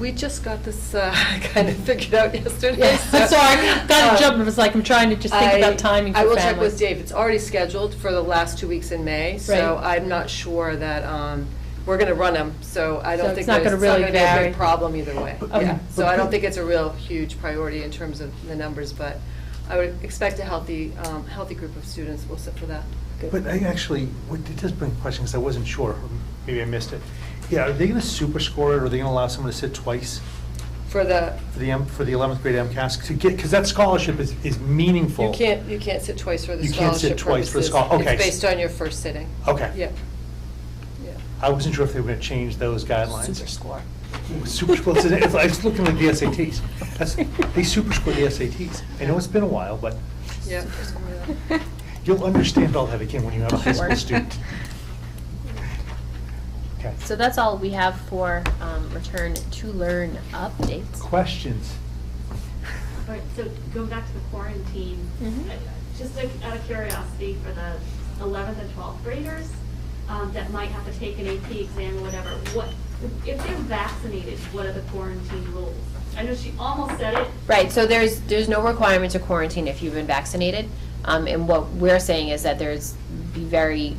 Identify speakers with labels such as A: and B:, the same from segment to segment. A: We just got this uh, kind of figured out yesterday.
B: Yeah, I'm
A: so,
B: sorry, got
A: um,
B: to jump, it was like, I'm trying to just think
A: I-
B: about timing for
A: I
B: families.
A: will check with Dave. It's already scheduled for the last two weeks in May, so
B: Right.
A: I'm not sure that, um, we're going to run them, so I
B: So
A: don't
B: it's
A: think
B: not
A: there's, it's
B: gonna
A: not going
B: really
A: to be a
B: vary.
A: big problem either way.
C: But-
A: Yeah,
C: but-
A: so I don't
C: but-
A: think it's a real huge priority in terms of the numbers, but I would expect a healthy, um, healthy group of students will sit for that.
C: But I actually, what- it does bring questions, I wasn't sure, maybe I missed it. Yeah, are they going to super score it, or are they going to allow someone to sit twice
A: For the,
C: for the, M- for the 11th grade MCAS? To get, because that scholarship is, is meaningful.
A: you can't, you can't sit twice for the
C: You
A: scholarship
C: can't sit twice for the
A: purposes.
C: schol- okay.
A: It's based on your first sitting.
C: Okay.
A: Yeah. Yeah.
C: I wasn't sure if they were going to change those guidelines.
A: Super score.
C: Super score, it's- it's like- it's looking like the SATs. That's- They super score the SATs. I know it's been a while, but
A: Yeah.
C: you'll understand all that again when you have a high school student. Okay.
D: So that's all we have for um, Return to Learn updates.
C: Questions?
E: All right, so going back to the quarantine,
A: Mm-hmm.
D: Mhm.
E: I- just like out of curiosity for the 11th and 12th graders um, that might have to take an AP exam or whatever, what, if they're vaccinated, what are the quarantine rules? I know she almost said it,
D: Right, so there's, there's no requirement to quarantine if you've been vaccinated. Um, And what we're saying is that there's be very,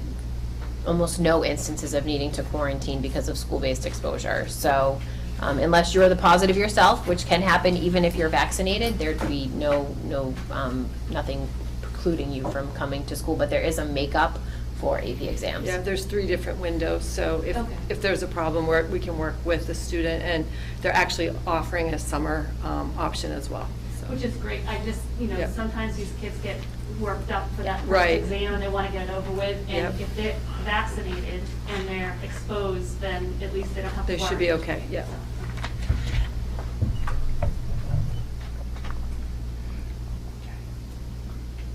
D: almost no instances of needing to quarantine because of school-based exposure. So um, unless you're the positive yourself, which can happen even if you're vaccinated, there'd be no, no, um, nothing precluding you from coming to school. But there is a makeup for AP exams.
A: Yeah, there's three different windows, so if,
E: Okay.
A: if there's a problem, where we can work with the student, and they're actually offering a summer um, option as well, so.
E: which is great. I just, you know,
A: Yep.
E: sometimes these kids get worked up for that first
A: Right.
E: exam and they want to get it over with.
A: Yep.
E: And if they're vaccinated and they're exposed, then at least they don't have to
A: They
E: worry.
A: should be okay, yeah.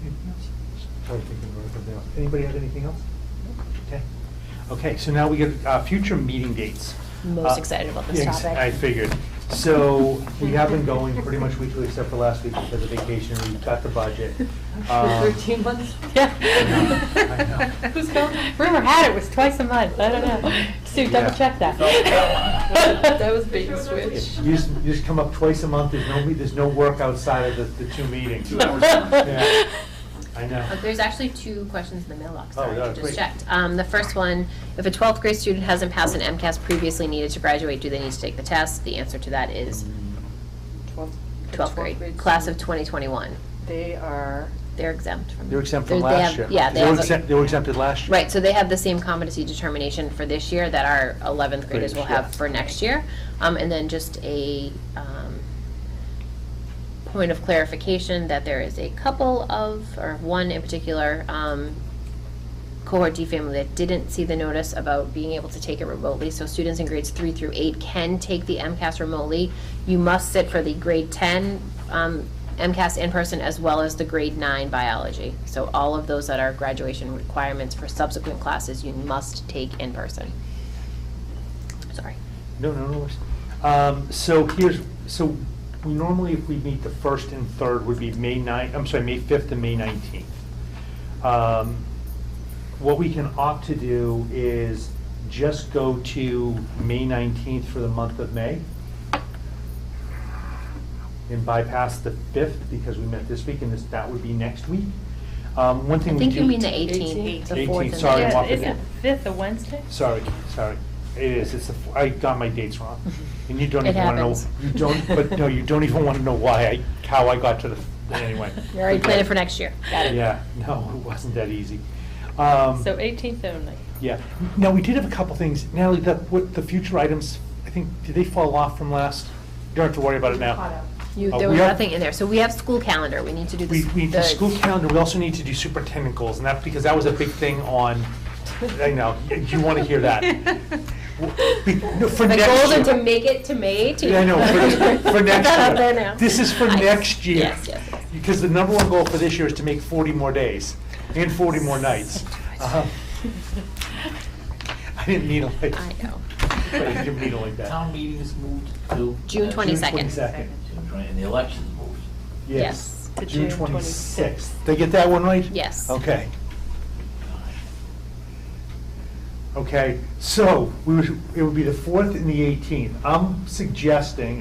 C: Anything else? Sorry, thinking about it now. Anybody have anything else? Okay. Okay, so now we get uh, future meeting dates.
D: Most
C: Uh,
D: excited about this
C: yes,
D: topic.
C: I figured. So we have been going pretty much weekly except for last week because of vacation. We got the budget. Um,
B: months?
C: Yeah. I know.
B: Who's going? Rumor had it was twice a month, I don't know. Sue, double
C: Yeah.
B: check that.
A: That was bait
E: Sure,
A: and
E: that's what
A: switch.
C: You just, you just come up twice a month. There's no, there's no work outside of the, the two meetings. Yeah, I know.
D: Uh, There's actually two questions in the mailbox,
C: Oh,
D: sorry,
C: yeah,
D: I just
C: great.
D: checked. Um, The first one, if a 12th grade student hasn't passed an MCAS previously needed to graduate, do they need to take the test? The answer to that is 12th grade, class of 2021.
A: They are,
D: They're exempt from.
C: They're exempt from
D: they- they
C: last
D: have-
C: year.
D: Yeah.
C: They were
D: have a-
C: exempt- They were exempted last year.
D: Right, so they have the same competency determination for this year that our 11th graders will
C: Graders, yeah.
D: have for next year. Um, And then just a um, point of clarification that there is a couple of, or one in particular, um, cohort D family that didn't see the notice about being able to take it remotely. So students in grades three through eight can take the MCAS remotely. You must sit for the grade 10 um, MCAS in person as well as the grade nine biology. So all of those that are graduation requirements for subsequent classes, you must take in person. Sorry.
C: No, no, no. worries. Um, So here's, so we normally, if we meet the first and third, would be May 9, I'm sorry, May 5th and May 19th. Um, What we can opt to do is just go to May 19th for the month of May and bypass the 5th because we met this week and this, that would be next week. Um, One thing
D: I
C: we do.
D: think you mean the
B: 18th.
D: 18th, the
C: 18th,
D: fourth and the
C: sorry,
D: eighth.
C: I'm off again.
B: fifth a Wednesday?
C: Sorry, sorry. It is, it's, the f- I got my dates wrong. And you don't
D: It
C: even want to know,
D: happens.
C: you don't, but no, you don't even want to know why I, how I got to the, f- anyway.
D: You already planned it for next year. Got it.
C: Yeah, no, it wasn't that easy. Um,
B: So 18th only.
C: Yeah. Now, we did have a couple things. Natalie, the, what, the future items, I think, did they fall off from last? You don't have to worry about it now.
D: You,
C: Uh,
D: there
C: we
D: was
C: are-
D: nothing in there. So we have school calendar. We need to do
C: We,
D: this.
C: we, the school calendar, we also need to do superintendent goals, and that, because that was a big thing on, I know, you want to hear that. W- be- no, For
D: The
C: next
D: goals are
C: year.
D: to make it to May 18th.
C: Yeah, I know, for, for
D: Put
C: next
D: that
C: year.
D: out there now.
C: This is for
D: I-
C: next year.
D: Yes, yes, yes.
C: Because the number one goal for this year is to make forty more days and forty more nights. Uh-huh. I didn't mean it like,
D: I know.
C: I didn't mean it like that.
F: Town meeting is moved to?
D: June 22nd.
C: 22nd.
F: And the election's moved.
C: Yes.
B: To
C: June
B: June 26th.
C: twenty-sixth. Did I get that one right?
D: Yes.
C: Okay. Okay, so we would, it would be the fourth and the eighteenth. I'm suggesting